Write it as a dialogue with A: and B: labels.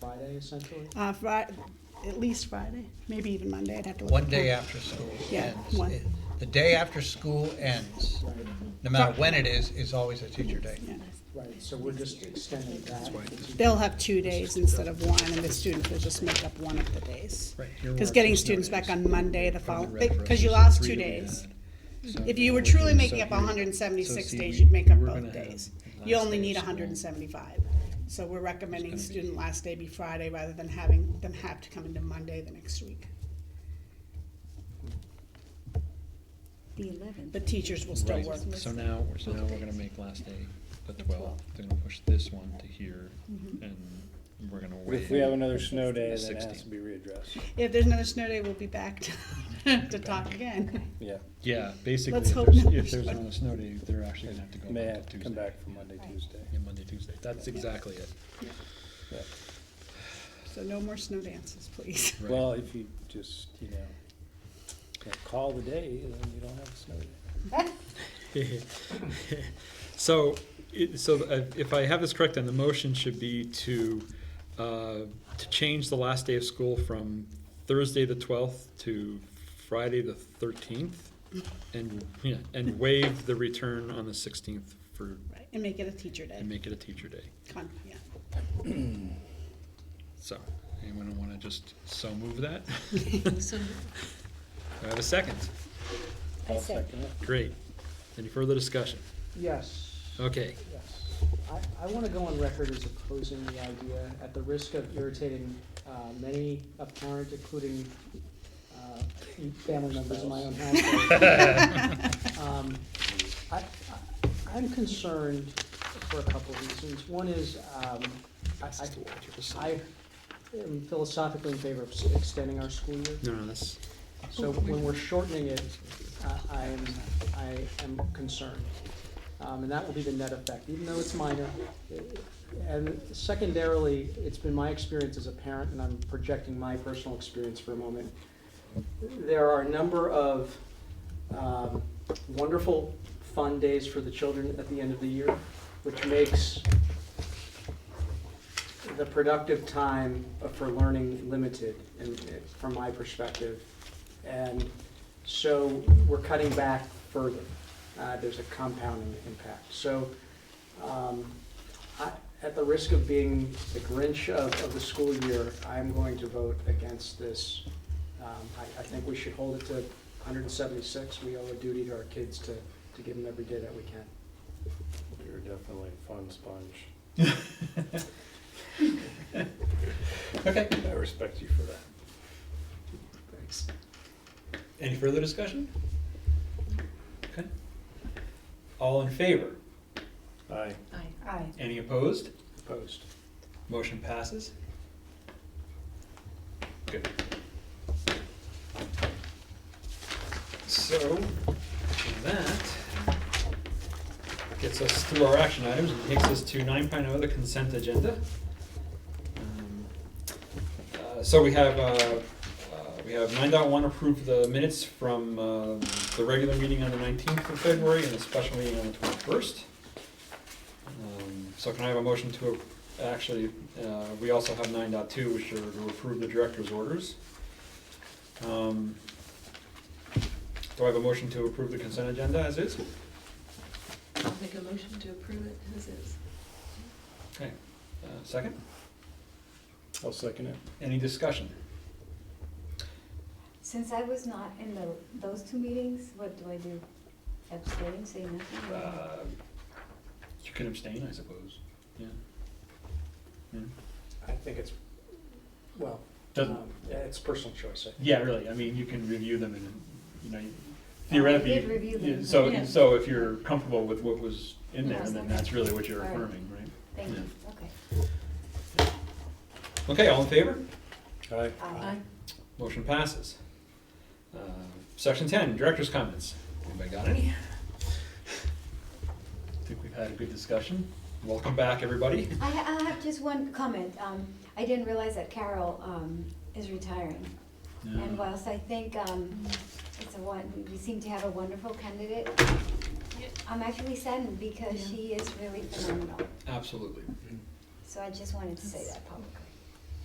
A: Friday essentially?
B: Uh, Friday, at least Friday, maybe even Monday, I'd have to look.
C: One
B: at
C: day
B: the-
C: after school
B: Yeah,
C: ends.
B: one.
C: It- The day after school ends,
A: Right,
C: no matter when it is, is always a teacher day.
B: Yeah.
A: right, so we're just extending that.
B: They'll have two days instead of one, and the students will just make up one of the days.
C: Right, your
B: Because
C: work
B: getting
C: is no
B: students back
C: days.
B: on Monday, the
C: the
B: following,
C: red for us
B: because you
C: is
B: lost
C: three
B: two
C: that we
B: days.
C: So-
B: If you were truly making up
C: So
B: hundred and seventy-six
C: see,
B: days,
C: we-
B: you'd make up
C: we're gonna
B: both
C: have
B: days.
C: the
B: You
C: last
B: only
C: day
B: need
C: of
B: hundred and
C: school.
B: seventy-five. So we're recommending
C: It's gonna be-
B: student last day be Friday rather than having them have to come into Monday the next week.
D: The eleventh.
B: The teachers will still
E: Right,
B: work.
E: So now, we're- so now we're gonna make last day the twelfth, they're gonna push this one to here,
B: Mm-hmm.
E: and we're gonna wait.
F: If we have another snow
E: The
F: day, then it has
E: 16th.
F: to be readdressed.
B: If there's another snow day, we'll be back to, to talk again.
F: Yeah,
E: Yeah, basically,
B: Let's
E: if
B: hope
E: there's,
B: not.
E: if there's another snow day, they're actually gonna have to go
F: may
E: back
F: have
E: to
F: to
E: Tuesday.
F: come back for Monday, Tuesday.
E: Yeah, Monday, Tuesday, that's exactly it.
F: Yeah.
B: So no more snow dances, please.
E: Right.
F: Well, if you just, you know, like, call the day, then you don't have a snow day.
G: So, it- so uh, if I have this correct, then the motion should be to, uh, to change the last day of school from Thursday the twelfth to Friday the thirteenth, and, yeah, and waive the return on the sixteenth for,
B: Right, And make it a teacher day.
G: and make it a teacher day,
B: Con- yeah.
G: so, anyone wanna just so move that? Do I have a second,
D: I
F: I'll
D: said,
F: second it.
G: great, any further discussion?
A: Yes.
G: Okay,
A: Yes. I, I want to go on record as opposing the idea, at the risk of irritating uh, many a parent, including uh, family members in my own household. Um, I, I- I'm concerned for a couple of reasons. One is, um, I, I I am philosophically in favor of s- extending our school year.
G: no, no, that's,
A: So when we're shortening it, I am, I am concerned. Um, And that will be the net effect, even though it's minor. And secondarily, it's been my experience as a parent, and I'm projecting my personal experience for a moment. There are a number of um, wonderful fun days for the children at the end of the year, which makes the productive time for learning limited, and from my perspective. And so we're cutting back further. Uh, There's a compounding impact. So um, I- at the risk of being the Grinch of of the school year, I'm going to vote against this. Um, I I think we should hold it to 176. We owe a duty to our kids to to give them every day that we can.
F: You're definitely a fun sponge.
C: Okay,
F: I respect you for that.
A: Thanks.
C: any further discussion? Okay. All in favor?
F: Aye.
D: aye.
C: Any opposed?
A: Opposed.
C: Motion passes. Good. So, that gets us through our action items and takes us to nine oh, the consent agenda. Um, uh, So we have, uh, uh, we have nine point one approve the minutes from uh, the regular meeting on the nineteenth of February and the special meeting on the twenty-first. Um, So can I have a motion to approve Actually, uh, we also have nine point two, which are to approve the director's orders. Um, Do I have a motion to approve the consent agenda as is?
H: Make a motion to approve it as is.
C: Okay, uh, second,
F: I'll second it.
C: any discussion?
D: Since I was not in the, those two meetings, what do I do? Abstain, say nothing? or-
C: Uh, You can abstain, I suppose, yeah. Yeah.
A: I think it's, well,
C: Doesn't-
A: um, yeah, it's personal choice, I think.
C: Yeah, really, I mean, you can review them and, you know,
D: I
C: theoretically.
D: Oh, did review them.
C: yeah, So,
H: Yeah.
C: so if you're comfortable with what was in there,
D: Yes,
C: then
D: okay.
C: that's really what you're
D: All right.
C: affirming, right?
D: Thank you, okay.
C: Okay, all in favor?
F: Aye.
D: Aye.
C: Motion passes. Uh, Section ten, director's comments. Anybody got any? Think we've had a good discussion. Welcome back, everybody.
D: I, ha- I have just one comment. Um, I didn't realize that Carol, um, is retiring. And whilst I think, um, it's a one, we seem to have a wonderful candidate, I'm actually saddened because she is really phenomenal.
C: Absolutely.
D: So I just wanted to say that publicly.